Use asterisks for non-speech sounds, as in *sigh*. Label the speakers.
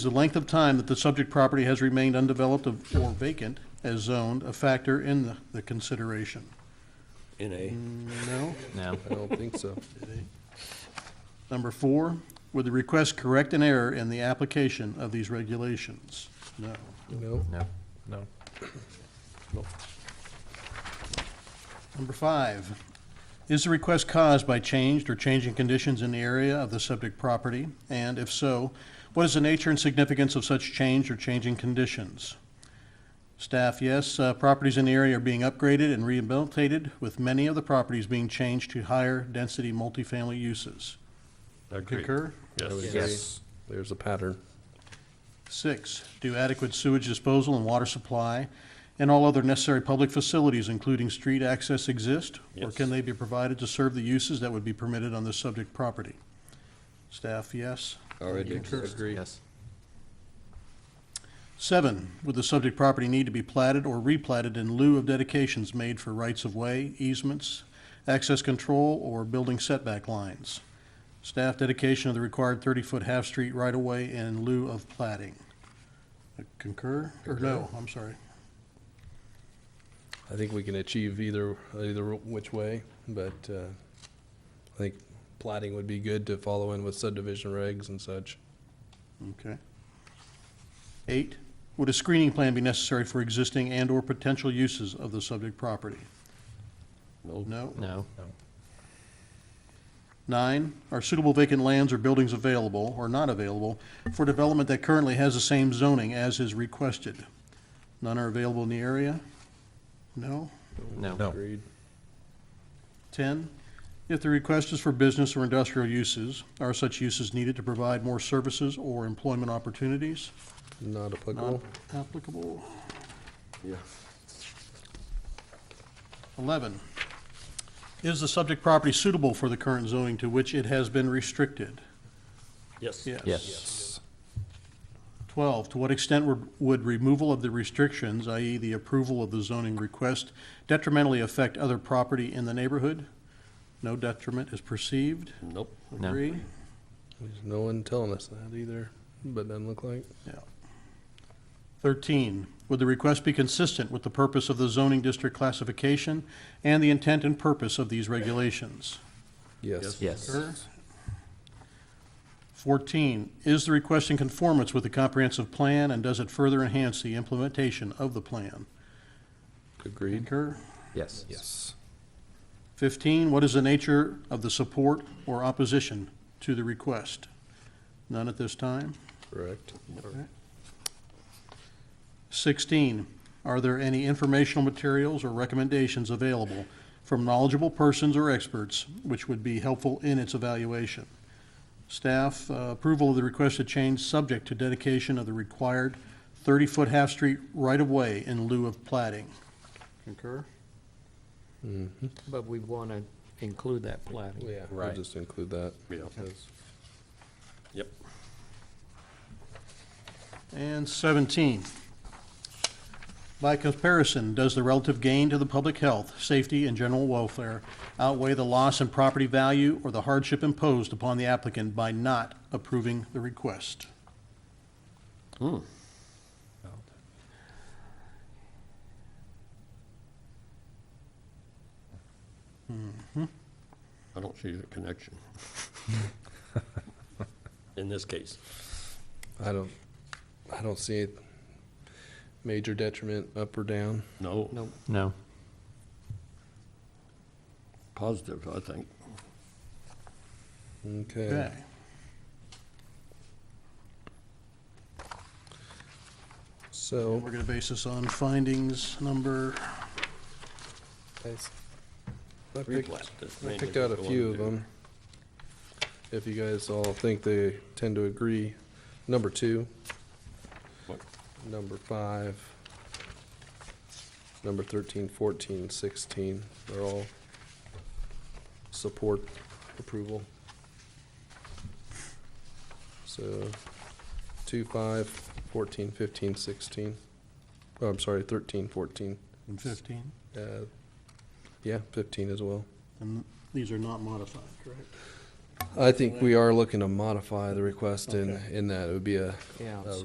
Speaker 1: Is the length of time that the subject property has remained undeveloped of- or vacant as zoned a factor in the- the consideration?
Speaker 2: in a,
Speaker 1: No?
Speaker 3: No.
Speaker 4: I don't think so.
Speaker 1: Number four, would the request correct an error in the application of these regulations? No.
Speaker 4: No.
Speaker 3: No. No.
Speaker 1: Number five, is the request caused by changed or changing conditions in the area of the subject property? And if so, what is the nature and significance of such change or changing conditions? Staff, yes, uh, properties in the area are being upgraded and rehabilitated, with many of the properties being changed to higher-density multifamily uses. Concur?
Speaker 4: I would agree.
Speaker 3: Yes.
Speaker 4: There's a pattern.
Speaker 1: Six, do adequate sewage disposal and water supply and all other necessary public facilities, including street access, exist? Or
Speaker 2: Yes.
Speaker 1: can they be provided to serve the uses that would be permitted on the subject property? Staff, yes.
Speaker 2: already
Speaker 1: Concur.
Speaker 2: exists.
Speaker 3: Yes.
Speaker 1: Seven, would the subject property need to be platted or replatted in lieu of dedications made for rights-of-way, easements, access control, or building setback lines? Staff dedication of the required 30-foot half-street right-of-way in lieu of platting. Concur, or no, I'm sorry.
Speaker 4: I think we can achieve either, either which way, but uh, I think plating would be good to follow in with subdivision regs and such.
Speaker 1: Okay. Eight, would a screening plan be necessary for existing and/or potential uses of the subject property?
Speaker 2: No.
Speaker 1: No?
Speaker 3: No.
Speaker 1: Nine, are suitable vacant lands or buildings available or not available for development that currently has the same zoning as is requested? None are available in the area? No?
Speaker 3: No.
Speaker 4: Agreed.
Speaker 1: 10, if the request is for business or industrial uses, are such uses needed to provide more services or employment opportunities?
Speaker 4: Not applicable.
Speaker 1: Not applicable.
Speaker 2: Yeah.
Speaker 1: 11, is the subject property suitable for the current zoning to which it has been restricted?
Speaker 2: Yes.
Speaker 3: Yes.
Speaker 1: 12, to what extent would- would removal of the restrictions, i.e. the approval of the zoning request, detrimentally affect other property in the neighborhood? No detriment is perceived.
Speaker 2: Nope.
Speaker 3: No.
Speaker 1: Agree?
Speaker 4: There's no one telling us that either, but doesn't look like.
Speaker 1: Yeah. 13, would the request be consistent with the purpose of the zoning district classification and the intent and purpose of these regulations?
Speaker 4: Yes.
Speaker 3: Yes.
Speaker 1: Sure. 14, is the request in conformance with the comprehensive plan, and does it further enhance the implementation of the plan?
Speaker 4: Agreed.
Speaker 1: Concur?
Speaker 3: Yes.
Speaker 4: Yes.
Speaker 1: 15, what is the nature of the support or opposition to the request? None at this time.
Speaker 4: Correct.
Speaker 1: 16, are there any informational materials or recommendations available from knowledgeable persons or experts which would be helpful in its evaluation? Staff, uh, approval of the requested change subject to dedication of the required 30-foot half-street right-of-way in lieu of plating. Concur?
Speaker 5: But we want to include that plating.
Speaker 4: Yeah, we'll
Speaker 3: Right.
Speaker 4: just include that.
Speaker 2: Yeah.
Speaker 4: Yes.
Speaker 2: Yep.
Speaker 1: And 17. By comparison, does the relative gain to the public health, safety, and general welfare outweigh the loss in property value or the hardship imposed upon the applicant by not approving the request?
Speaker 2: I don't see the
Speaker 4: *laughs*
Speaker 2: connection. In this case.
Speaker 4: I don't, I don't see it. Major detriment up or down.
Speaker 2: No.
Speaker 5: No,
Speaker 3: No.
Speaker 2: Positive, I think.
Speaker 4: Okay.
Speaker 1: Okay.
Speaker 4: So.
Speaker 1: We're going to base this on findings number,
Speaker 4: I s- I picked,
Speaker 2: Replat, that's
Speaker 4: I
Speaker 2: mainly
Speaker 4: picked out a
Speaker 2: what we
Speaker 4: few
Speaker 2: wanna
Speaker 4: of
Speaker 2: do.
Speaker 4: them. If you guys all think they tend to agree, number two,
Speaker 2: What-
Speaker 4: number five, number 13, 14, 16, they're all support approval. So two, five, 14, 15, 16. Oh, I'm sorry, 13, 14.
Speaker 1: and 15,
Speaker 4: Uh, Yeah, 15 as well.
Speaker 1: and these are not modified, correct?
Speaker 4: I think we are looking to modify the request in, in that it would be a
Speaker 5: yeah.
Speaker 4: Uh,